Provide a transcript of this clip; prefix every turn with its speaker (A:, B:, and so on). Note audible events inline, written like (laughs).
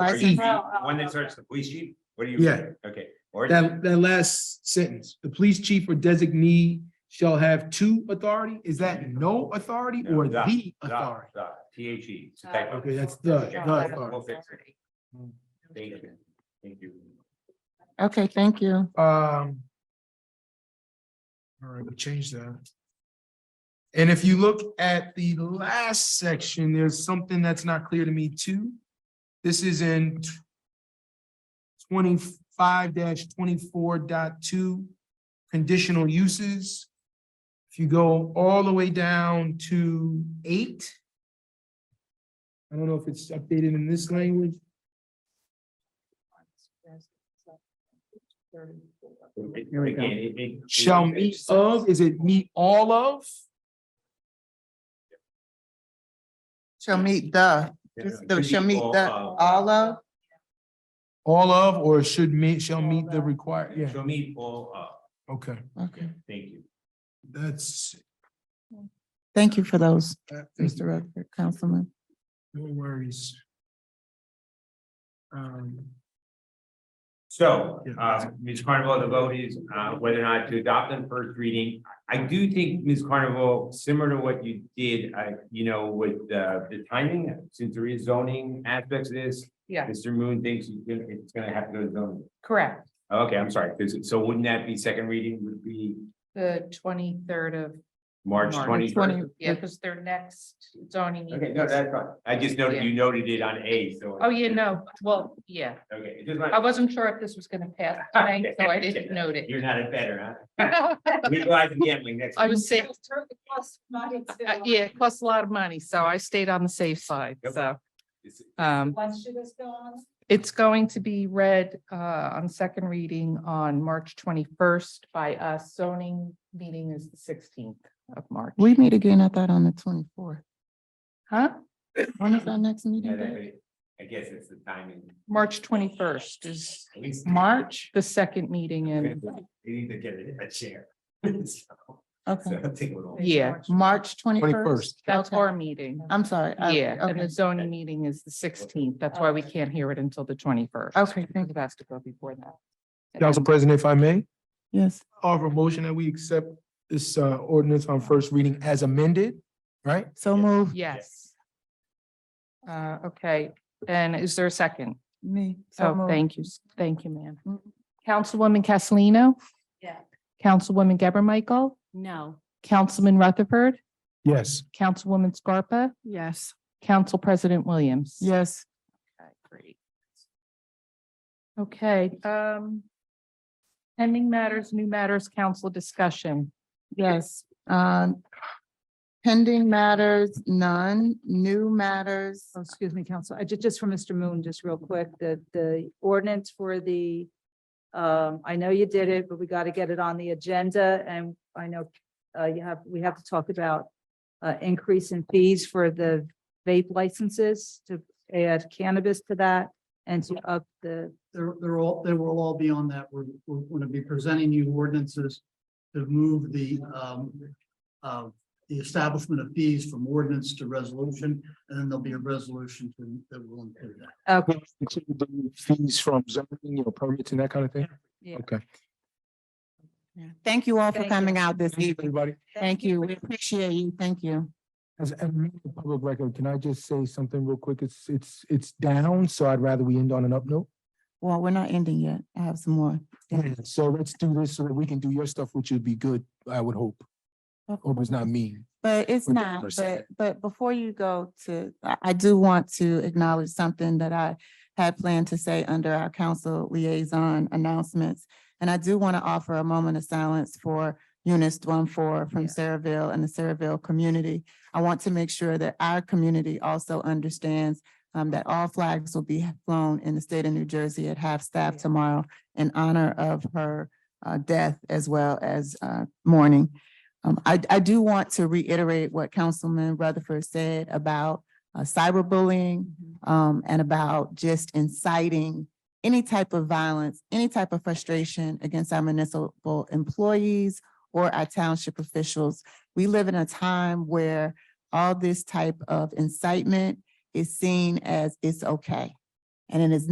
A: Are
B: That's
A: you
B: easy.
A: the One that starts the police chief, what do you?
B: Yeah.
A: Okay, or,
B: That, that last sentence, the police chief or designee shall have two authority, is that no authority
A: No,
B: or
A: the-
B: the
A: the,
B: authority?
A: the, T H E.
B: Okay, that's the- the
A: We'll
B: authority.
A: fix it. Thank you. Thank you.
C: Okay, thank you.
B: Um. All right, we changed that. And if you look at the last section, there's something that's not clear to me too. This is in twenty-five 24 conditional uses. If you go all the way down to eight. I don't know if it's updated in this language.
A: Here we go.
B: Shall meet of, is it meet all of?
C: Shall meet the, just the- shall meet the,
A: uh,
C: all of,
B: All of, or should meet, shall meet the required, yeah,
A: Shall meet all of,
B: okay,
A: yeah,
C: okay.
A: thank you.
B: that's,
C: Thank you for those,
B: that- that's
C: Mr. Rutherford, Councilman.
B: no worries. Um,
A: So,
B: Yeah.
A: uh, Ms. Carnival, the vote is, uh, whether or not to adopt on first reading. I do think, Ms. Carnival, similar to what you did, uh, you know, with, uh, the timing, since there is zoning aspects of this.
D: Yeah.
A: Mr. Moon thinks you can- it's gonna have to go to zoning.
D: Correct,
A: Okay, I'm sorry, 'cause- so wouldn't that be second reading would be
D: the twenty-third of.
A: March
D: March.
A: twenty
C: Twenty-
A: first?
D: Yeah, because their next zoning.
A: Okay,
D: meeting
A: no,
D: is-
A: that's fine. I just noted,
D: Yeah.
A: you noted it on A, so.
D: Oh, yeah, no, well, yeah,
A: Okay. it just
D: I
A: might-
D: wasn't sure if this was gonna
A: (laughs)
D: pass tonight, so I didn't note it.
A: You're not a better,
D: I
A: huh? (laughs) We go out to gambling next.
D: was safe. Uh, Yeah, it costs a lot of money, so I stayed on the safe side,
A: Yep.
D: so,
A: It's-
D: um. It's going to be read, uh, on second reading on March twenty-first by us. Zoning meeting is the sixteenth of March.
C: We meet again, I thought, on the twenty-fourth.
D: Huh?
C: When is our next
A: (laughs) Yeah,
C: meeting?
A: that-
C: date?
A: I guess it's the timing.
D: March twenty-first is
A: At least- (laughs)
D: March, the second meeting in,
A: You need to get it in a chair. (laughs) So, so
C: Okay,
A: I think we'll all-
D: yeah,
C: March twenty-first.
B: 21st.
D: that's
C: Okay.
D: our meeting.
C: I'm sorry. I-
D: Yeah, and the
C: okay.
D: zoning meeting is the sixteenth. That's why we can't hear it until the twenty-first.
C: Okay, thank
D: It has to go before that. And then-
B: Council President, if I may,
C: Yes,
B: offer a motion that we accept this uh ordinance on first reading as amended, right?
C: so move
D: Yes. Uh, okay, and is there a second?
C: me. so
D: So
C: moved.
D: Oh, thank you, thank you, ma'am.
C: Mhm.
D: Councilwoman Castellino?
E: Yeah.
D: Councilwoman Geber Michael?
E: No.
D: Councilman Rutherford?
B: Yes.
D: Councilwoman Scarpa?
E: Yes.
D: Council President Williams?
C: Yes,
D: Okay, great. Okay, um. Pending matters, new matters, council discussion.
C: yes. Um, pending matters, none, new matters.
E: Oh, Excuse me, Council. I just, just for Mr. Moon, just real quick, the, the ordinance for the, um, I know you did it, but we got to get it on the agenda and I know, uh, you have, we have to talk about uh, increase in fees for the vape licenses to add cannabis to that and to up the,
F: They're, they're all, they will all be on that. We're, we're going to be presenting you ordinances to move the, um, uh, the establishment of fees from ordinance to resolution, and then there'll be a resolution to, that will include that.
E: okay,
B: Include the Fees from zoning, you know, permits and that kind of thing?
E: Yeah.
B: Okay.
C: Yeah. Thank you all for
E: Thank you.
C: coming out this
B: Thank you,
C: evening.
B: everybody.
C: Thank you. We appreciate you. Thank you.
B: As a member of public record, can I just say something real quick? It's it's it's down, so I'd rather we end on an up note.
C: Well, we're not ending yet. I have some more.
B: Yeah, so let's do this so that we can do your stuff, which would be good, I would hope. Hope it's not mean.
C: But it's
B: Or
C: not, but,
B: percent.
C: but before you go to, I, I do want to acknowledge something that I had planned to say under our council liaison announcements. And I do want to offer a moment of silence for Eunice Dwumfor from Saraville and the Saraville community. I want to make sure that our community also understands um, that all flags will be flown in the state of New Jersey at half-staff
E: Yeah.
C: tomorrow in honor of her uh, death as well as uh, mourning. Um, I, I do want to reiterate what Councilman Rutherford said about uh, cyberbullying um, and about just inciting any type of violence, any type of frustration against our municipal employees or our township officials. We live in a time where all this type of incitement is seen as it's okay. and it is